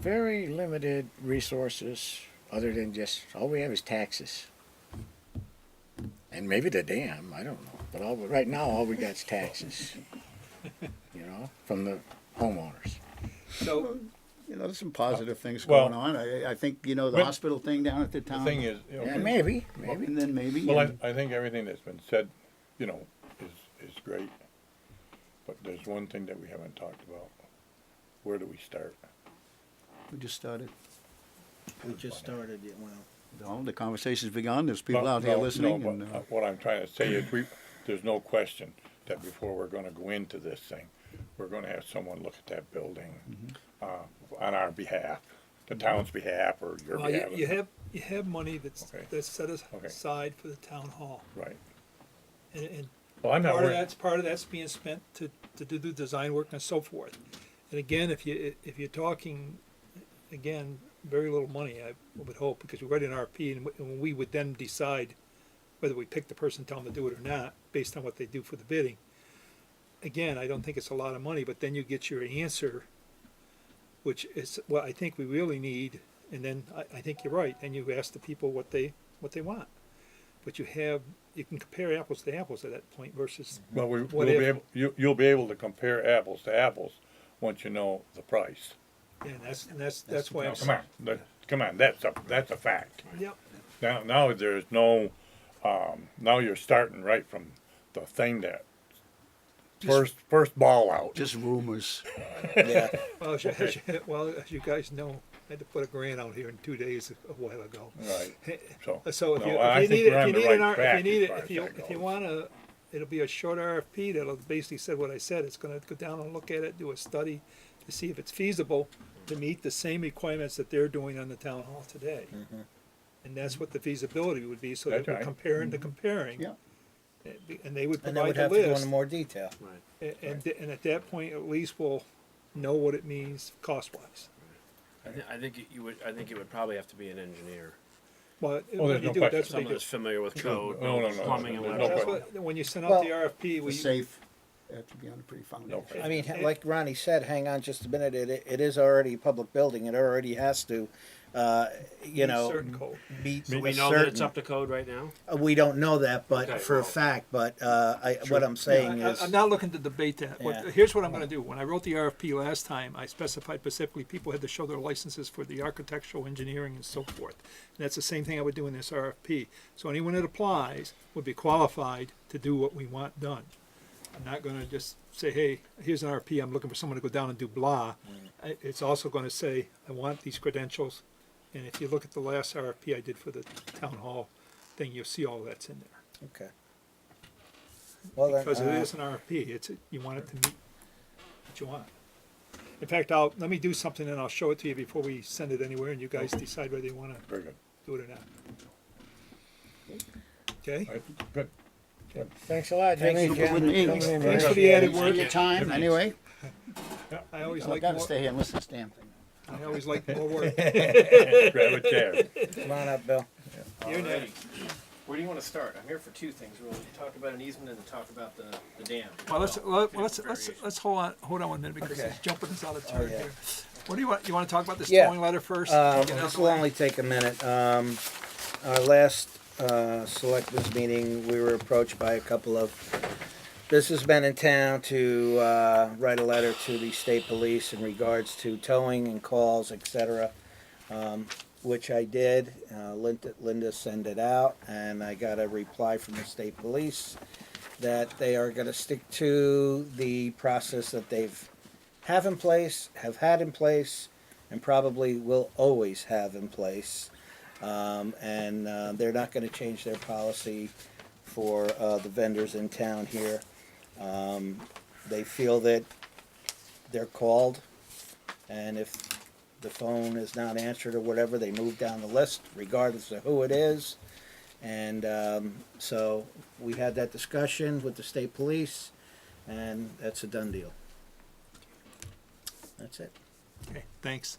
very limited resources other than just all we have is taxes. And maybe the dam, I don't know. But all right now, all we got is taxes. You know, from the homeowners. So, You know, there's some positive things Well- going on. I, I think, you know, the But- hospital thing down at the town. The thing is, you know, Yeah, maybe, maybe. And then maybe. well, and- I, I think everything that's been said, you know, is, is great. But there's one thing that we haven't talked about. Where do we start? We just started. we just started, yeah, well, No, the conversation's begun. There's people Well, out here no, no, listening. but, and, uh, uh, What I'm trying to say is we, there's no question that before we're gonna go into this thing, we're gonna have someone look at that building, Mm-hmm. uh, on our behalf, the town's behalf or your Well, Uh, you, you behalf, have, you have money that's, Okay. that's set as- Okay. aside for the town hall. right? And, and Well, I'm not part of worried, that's, part of that's being spent to, to do the design work and so forth. And again, if you, if you're talking, again, very little money, I would hope, because we write an RP and we- and we would then decide whether we pick the person, tell them to do it or not, based on what they do for the bidding. Again, I don't think it's a lot of money, but then you get your answer, which is what I think we really need. And then I, I think you're right. Then you ask the people what they, what they want. But you have, you can compare apples to apples at that point versus well, we, What we'll be if- able, you, you'll be able to compare apples to apples once you know the price. Yeah, And that's, and that's, that's why Now, I'm. Come on, that- come on, that's a, that's a fact. Yep, Now, now there's no, um, now you're starting right from the thing that first, first ball out. Just rumors. well, as you, as you- well, as you guys know, I had to put a grant out here in two days a while ago. Right, so. So if no, you, I if think you need, it- we're on if you the need right an, R- track if you need as it, far if as you, that if you goes. wanna, it'll be a short RFP that'll basically said what I said, it's gonna go down and look at it, do a study to see if it's feasible to meet the same requirements that they're doing on the town hall today. And that's what the feasibility would be, so that Mm-hmm. That's we're right. comparing to comparing. Yeah. And they would Mm-hmm. and they provide would the have to go list. into more detail. And, and, th- and at that point, at least we'll know what it means cost wise. I, thi- I think it- you would. I think it would probably have to be an engineer, But Oh, when there's you no do it, question. that's what someone they do. that's familiar with code, no, no, knows no, plumbing, no, and no electrical. That's question. what, when you send out the Well- RFP, The we, safe, have to be on a pretty foundation. question. I mean, ha- like Ronnie said, hang on just a minute, it, it is already a public building, it already has to, uh, you know, certain code. meet So we a know that it's certain. up to code right now. Uh, We don't know that, Okay, but for a well- fact, but, uh, I, what I'm saying I- is, I- I'm not looking to debate that. What- Yeah. Here's what I'm gonna do. When I wrote the RFP last time, I specified specifically people had to show their licenses for the architectural, engineering, and so forth. And that's the same thing I would do in this RFP. So anyone that applies would be qualified to do what we want done. I'm not gonna just say, hey, here's an RFP, I'm looking for someone to go down and do blah. Mm. I- It's also gonna say, I want these credentials. And if you look at the last RFP I did for the town hall thing, you'll see all that's in there. okay. Well, then, Because it uh, is an RFP, it's, you want it to meet what you want. In fact, I'll, let me do something and I'll show it to you before we send it anywhere and you guys decide whether you wanna Very good, do it or not. Okay? All right, good. Thanks a lot, Jimmy. Thanks for Jen, putting in. coming in. Thanks man. for the added Thanks for work. your time, anyway. I always I like gotta more, stay here and listen to this damn thing. I always like more work. Grab a chair. come on up, Bill. You're Alrighty. next. Where do you want to start? I'm here for two things, really. To Talk about an easement and to talk about the, the dam. Well, let's, Well, let- let's, let's, let's hold on, hold on one minute because Okay. it's jumping us out of Oh, turn yeah. here. What do you want, you wanna talk about this Yeah. towing letter first? Uh, Get it out this the will way? only take a minute. Um, our last, uh, selectmen's meeting, we were approached by a couple of businessmen in town to, uh, write a letter to the state police in regards to towing and calls, et cetera. Um, which I did. Uh, Linda, Linda sent it out and I got a reply from the state police that they are gonna stick to the process that they've have in place, have had in place, and probably will always have in place. Um, and uh, they're not going to change their policy for uh, the vendors in town here. Um, they feel that they're called, and if the phone is not answered or whatever, they move down the list, regardless of who it is. And um, so we had that discussion with the state police, and that's a done deal. That's it. Okay, Thanks.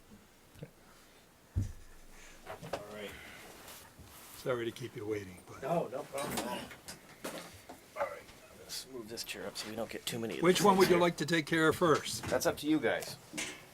right. Sorry to keep you waiting, but. No, no problem at all. All right, let's move this chair up so we don't get too many. of Which these one would things you here. like to take care of first? That's up to you guys.